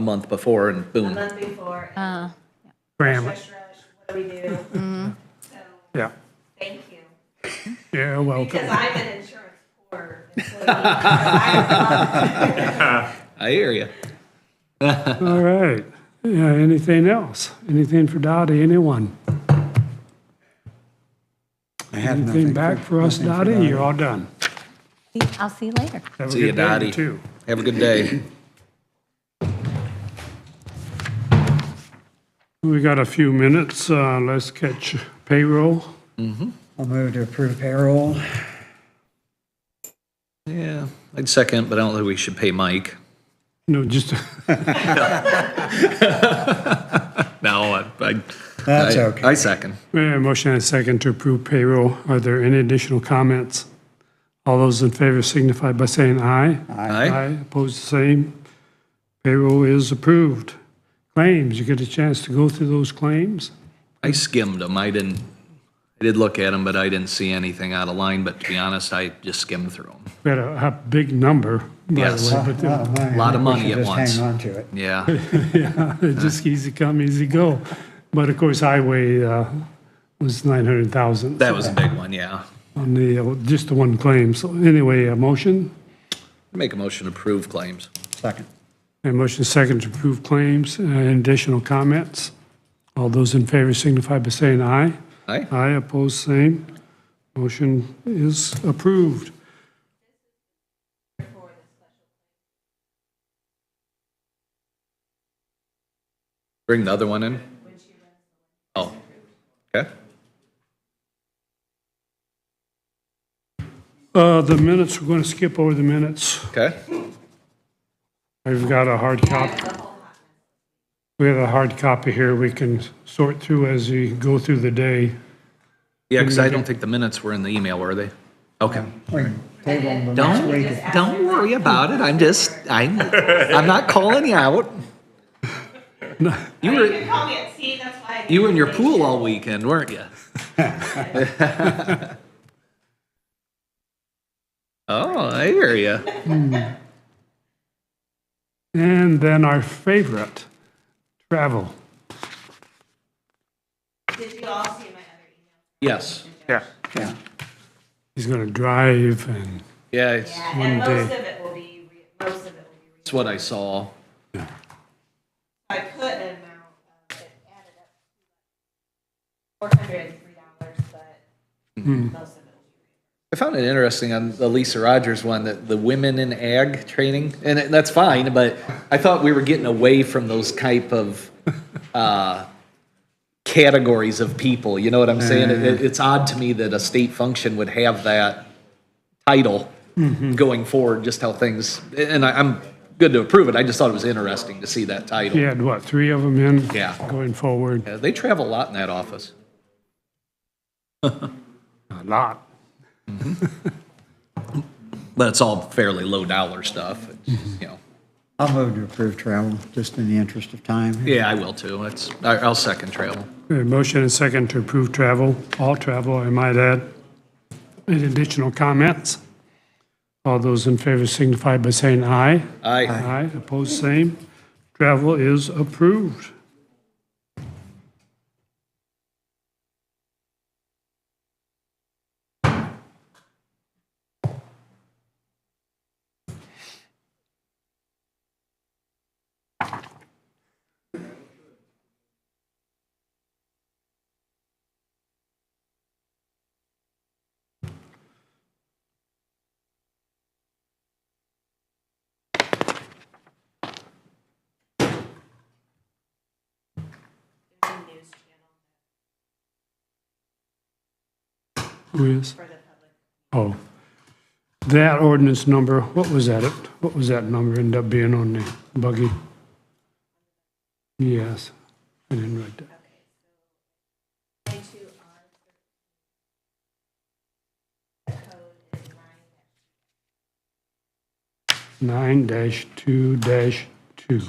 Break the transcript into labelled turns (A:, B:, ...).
A: month before and
B: a
A: boom.
B: month before, and
C: Uh,
D: Graham,
B: rush, rush, what do we do? So,
D: yeah,
B: thank you.
D: yeah, well,
B: Because I'm an insurance poor employee. so I love-
A: I hear you.
D: all right. Yeah, anything else? Anything for Dottie, anyone?
E: I have
D: Anything
E: nothing
D: back for us,
E: nothing for
D: Dottie? You're all done.
C: see- I'll see you later.
D: Have a
A: See ya,
D: good day,
A: Dottie.
D: too.
A: Have a good day.
D: We got a few minutes, uh, let's catch payroll.
E: I'll move to approve payroll.
A: Yeah, I'd second, but I don't think we should pay Mike.
D: No, just,
A: No, I, I.
E: That's
A: I-
E: okay.
A: I second.
D: Uh, motion and a second to approve payroll. Are there any additional comments? All those in favor signify by saying aye.
A: Aye.
D: Opposed, the same. Payroll is approved. Claims, you get a chance to go through those claims?
A: I skimmed them. I didn't, I did look at them, but I didn't see anything out of line, but to be honest, I just skimmed through them.
D: We had a, a big number, by
A: Yes.
D: the way, but uh,
A: Lot of money at once.
E: Just hang on to it.
A: Yeah,
D: it's just easy come, easy go. But of course, highway, uh, was nine hundred thousand
A: that was a big one, yeah.
D: on the, uh, just the one claim. So anyway, a motion?
A: Make a motion to approve claims.
E: Second.
D: And motion second to approve claims and additional comments. All those in favor signify by saying aye.
A: Aye?
D: Aye, opposed, same. Motion is approved.
A: Bring the other one in? Oh, okay.
D: Uh, The minutes, we're going to skip over the minutes.
A: Okay.
D: I've got a hard copy. We have a hard copy here we can sort through as we go through the day.
A: Yeah, because I don't think the minutes were in the email, were they? Okay.
E: Wait, table them the next
A: Don't,
E: week.
A: don't worry about it. I'm just, I'm, I'm not calling you out. You
B: You
A: were,
B: can call me at C, that's why. I
A: you were in your
B: didn't
A: pool all weekend, weren't you? Oh, I hear you.
D: And then our favorite, travel.
B: make- Did you all see my other email?
A: Yes.
E: Yeah.
D: He's going to drive and
A: Yeah, it's,
B: Yeah, and
D: one
B: most of it will be, re- most of it will be. re-
A: it's what I saw.
B: I put an amount of it added up. Four hundred and three dollars, but
A: Hmm.
B: most of it will be.
A: I found it interesting on the Lisa Rogers one that the women in ag training, and it- that's fine, but I thought we were getting away from those type of uh, categories of people. You know what I'm saying? It- it- it's odd to me that a state function would have that title going forward. Just how things, and I, I'm good to approve it. I just thought it was interesting to see that title.
D: he had, what, three of them in?
A: Yeah.
D: Going forward,
A: Yeah, they travel a lot in that office.
D: a lot.
A: but it's all fairly low dollar stuff. It's, you know,
E: I'll move to approve travel, just in the interest of time.
A: yeah, I will too. It's I, I'll second travel.
D: A motion and second to approve travel, all travel, I might add. Any additional comments? All those in favor signify by saying aye.
A: I
D: Aye, opposed, same. Travel is approved. Who is? Oh. That ordinance number, what was that? What was that number end up being on the buggy? Yes, I didn't write that. Nine dash two dash two.